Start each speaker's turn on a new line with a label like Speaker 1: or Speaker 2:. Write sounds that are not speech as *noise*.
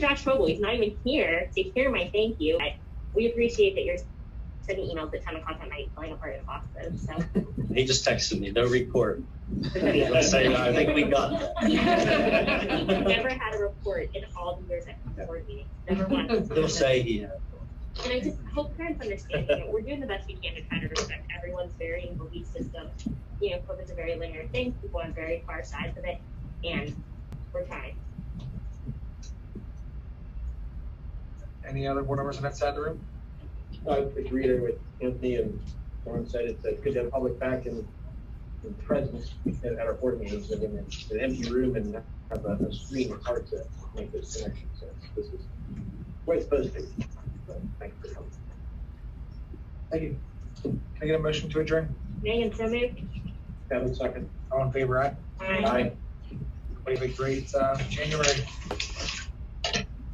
Speaker 1: Josh Trobel. He's not even here to hear my thank you. I, we appreciate that you're sending emails at 10 o'clock at night telling a part of the boxes. So, *laughs*
Speaker 2: He just texted me, no report. I
Speaker 1: I've
Speaker 2: say, I think we got that.
Speaker 1: never had a report in all the years I've board meetings. Never once.
Speaker 2: He'll say he, uh,
Speaker 1: And I just hope parents understand that we're doing the best we can to try to respect everyone's varying belief system. You know, COVID's a very linear thing. People on very far sides of it, and we're trying.
Speaker 3: Any other board members outside the room?
Speaker 4: I would just reiterate what Anthony and Lauren said, it's it's good to have public back and and presence at at our board meetings, and in an empty room and have a a screen, it's hard to make those connections, so this is where it's supposed to be. So, Thank you for coming.
Speaker 3: Thank you. Can I get a motion to adjourn?
Speaker 1: Megan, so moved.
Speaker 4: Have a second.
Speaker 3: All in favor, aye.
Speaker 1: Aye.
Speaker 4: Aye.
Speaker 3: What a great, uh, January.